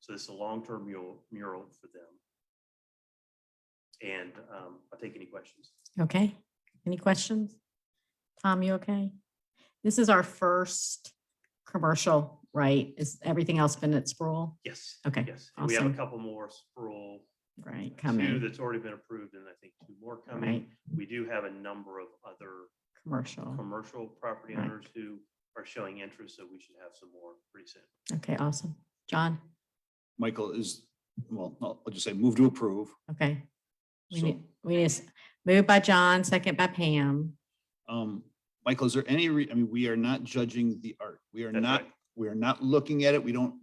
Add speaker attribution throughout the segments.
Speaker 1: So this is a long-term mural, mural for them. And um, I'll take any questions.
Speaker 2: Okay, any questions? Tom, you okay? This is our first commercial, right? Is everything else been at Sproul?
Speaker 1: Yes.
Speaker 2: Okay,
Speaker 1: Yes. And We have a
Speaker 2: awesome.
Speaker 1: couple more sprawl,
Speaker 2: Right,
Speaker 1: two
Speaker 2: coming,
Speaker 1: that's already been approved and I think two more coming.
Speaker 2: right,
Speaker 1: We do have a number of other
Speaker 2: commercial.
Speaker 1: commercial property
Speaker 2: Right.
Speaker 1: owners who are showing interest, so we should have some more pretty soon.
Speaker 2: Okay, awesome. John,
Speaker 3: Michael is, well, no, I'll just say move to approve.
Speaker 2: okay. We
Speaker 3: So,
Speaker 2: need, we need, s- moved by John, second by Pam.
Speaker 3: um, Michael, is there any, re- I mean, we are not judging the art. We are
Speaker 1: That's
Speaker 3: not,
Speaker 1: right.
Speaker 3: we are not looking at it. We don't,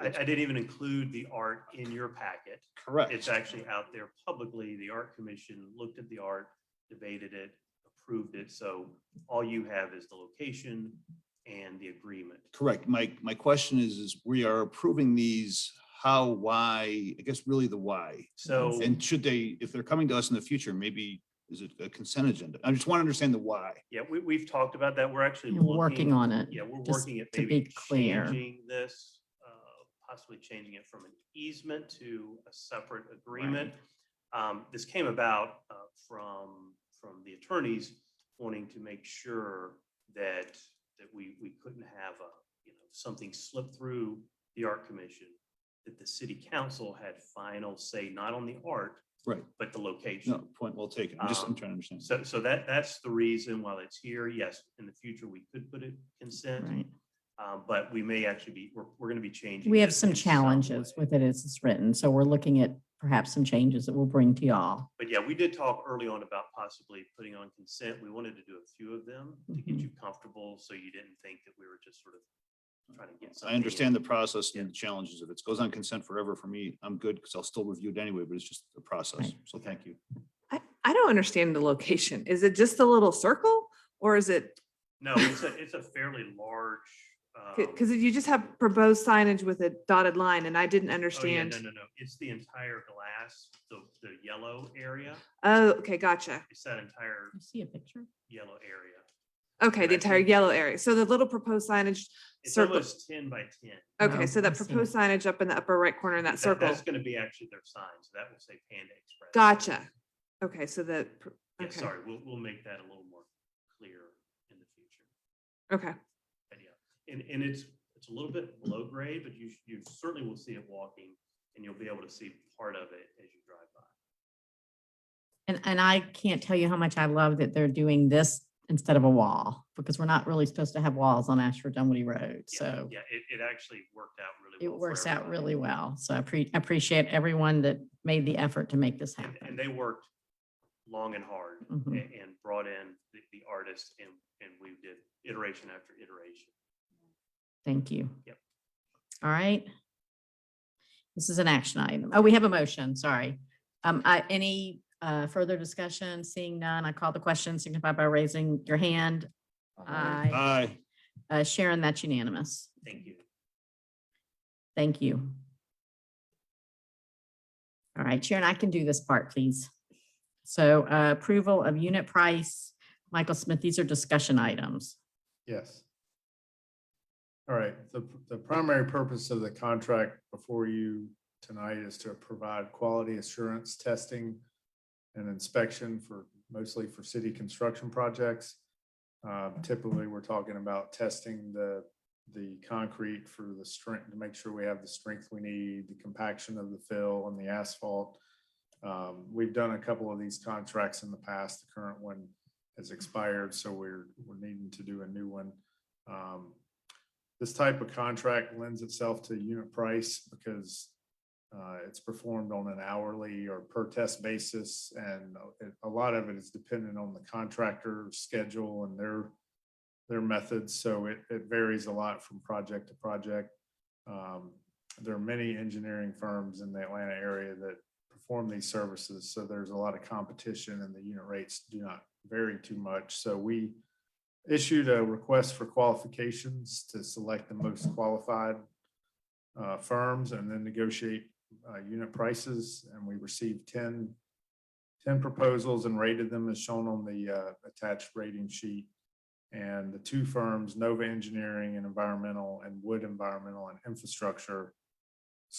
Speaker 1: I, I didn't even include the art in your packet. It's
Speaker 3: correct.
Speaker 1: actually out there publicly. The art commission looked at the art, debated it, approved it. So all you have is the location and the agreement.
Speaker 3: Correct. My, my question is, is we are approving these, how, why, I guess really the why.
Speaker 1: So
Speaker 3: And should they, if they're coming to us in the future, maybe is it a consent agenda? I just want to understand the why.
Speaker 1: Yeah, we, we've talked about that. We're actually
Speaker 2: You're working on it.
Speaker 1: Yeah, we're
Speaker 2: just
Speaker 1: working at
Speaker 2: to
Speaker 1: maybe
Speaker 2: be clear.
Speaker 1: changing this, uh, possibly changing it from an easement to a separate agreement. Um, This came about uh, from, from the attorneys wanting to make sure that, that we, we couldn't have a, you know, something slip through the art commission, that the city council had final say, not on the art,
Speaker 3: Right.
Speaker 1: but the location.
Speaker 3: No, point well taken. I'm just, I'm
Speaker 1: Um,
Speaker 3: trying to understand.
Speaker 1: So, so that, that's the reason while it's here, yes, in the future, we could put it consent,
Speaker 2: Right.
Speaker 1: um, but we may actually be, we're, we're gonna be changing.
Speaker 2: We
Speaker 1: it
Speaker 2: have some
Speaker 1: in
Speaker 2: challenges
Speaker 1: way.
Speaker 2: with it as it's written, so we're looking at perhaps some changes that we'll bring to y'all.
Speaker 1: But yeah, we did talk early on about possibly putting on consent. We wanted to do a few of them to get
Speaker 2: Mhm.
Speaker 1: you comfortable, so you didn't think that we were just sort of trying to get something.
Speaker 3: I
Speaker 1: in.
Speaker 3: understand the process
Speaker 1: Yeah.
Speaker 3: and the challenges. If it goes on consent forever for me, I'm good because I'll still review it anyway, but it's just the process.
Speaker 2: Right.
Speaker 3: So thank you.
Speaker 4: I, I don't understand the location. Is it just a little circle or is it,
Speaker 1: No, it's a, it's a fairly large. um,
Speaker 4: because you just have proposed signage with a dotted line and I didn't
Speaker 1: Oh, yeah,
Speaker 4: understand.
Speaker 1: no, no, no. It's the entire glass, the, the yellow area.
Speaker 4: Oh, okay, gotcha.
Speaker 1: It's that entire
Speaker 2: You see a picture?
Speaker 1: yellow area.
Speaker 4: Okay,
Speaker 1: And I
Speaker 4: the entire
Speaker 1: think-
Speaker 4: yellow area. So the little proposed signage
Speaker 1: It's
Speaker 4: circle.
Speaker 1: almost ten by ten.
Speaker 2: No,
Speaker 4: Okay, so
Speaker 2: I
Speaker 4: that
Speaker 2: see it.
Speaker 4: proposed signage up in the upper right corner in that
Speaker 1: That-
Speaker 4: circle.
Speaker 1: That's gonna be actually their sign, so that will say Panda Express.
Speaker 4: Gotcha. Okay, so that, pr-
Speaker 1: Yeah,
Speaker 4: okay,
Speaker 1: sorry, we'll, we'll make that a little more clear in the future.
Speaker 4: okay,
Speaker 1: But yeah, and, and it's, it's a little bit below grade, but you, you certainly will see it walking and you'll be able to see part of it as you drive by.
Speaker 2: And, and I can't tell you how much I love that they're doing this instead of a wall, because we're not really supposed to have walls on Ashford Dunwoody Road,
Speaker 1: Yeah,
Speaker 2: so
Speaker 1: Yeah, it, it actually worked out really
Speaker 2: it
Speaker 1: well. for
Speaker 2: works out
Speaker 1: everybody.
Speaker 2: really well. So I appre- appreciate everyone that made the effort to make this
Speaker 1: And- And
Speaker 2: happen.
Speaker 1: they worked long and hard a-
Speaker 2: Mhm.
Speaker 1: and, brought in the, the artist and, and we did iteration after iteration.
Speaker 2: Thank you.
Speaker 1: Yep.
Speaker 2: All right. This is an action item. Oh, we have a motion, sorry. Um, I, any, uh, further discussion? Seeing none, I call the question, signify by raising your hand. Aye.
Speaker 3: Aye.
Speaker 2: Uh, Sharon, that's unanimous.
Speaker 1: Thank you.
Speaker 2: Thank you. All right, Sharon, I can do this part, please. So uh, approval of unit price, Michael Smith, these are discussion items.
Speaker 5: Yes. All right, the, the primary purpose of the contract before you tonight is to provide quality assurance testing and inspection for, mostly for city construction projects. Uh, Typically, we're talking about testing the, the concrete for the strength, to make sure we have the strength we need, the compaction of the fill and the asphalt. Um, We've done a couple of these contracts in the past, the current one has expired, so we're, we're needing to do a new one. Um, This type of contract lends itself to unit price because uh, it's performed on an hourly or per test basis, and a- a lot of it is dependent on the contractor schedule and their, their methods, so it, it varies a lot from project to project. Um, There are many engineering firms in the Atlanta area that perform these services, so there's a lot of competition and the unit rates do not vary too much. So we issued a request for qualifications to select the most qualified uh, firms and then negotiate uh, unit prices. And we received 10, 10 proposals and rated them as shown on the uh, attached rating sheet. And the two firms, Nova Engineering and Environmental and Wood Environmental and Infrastructure,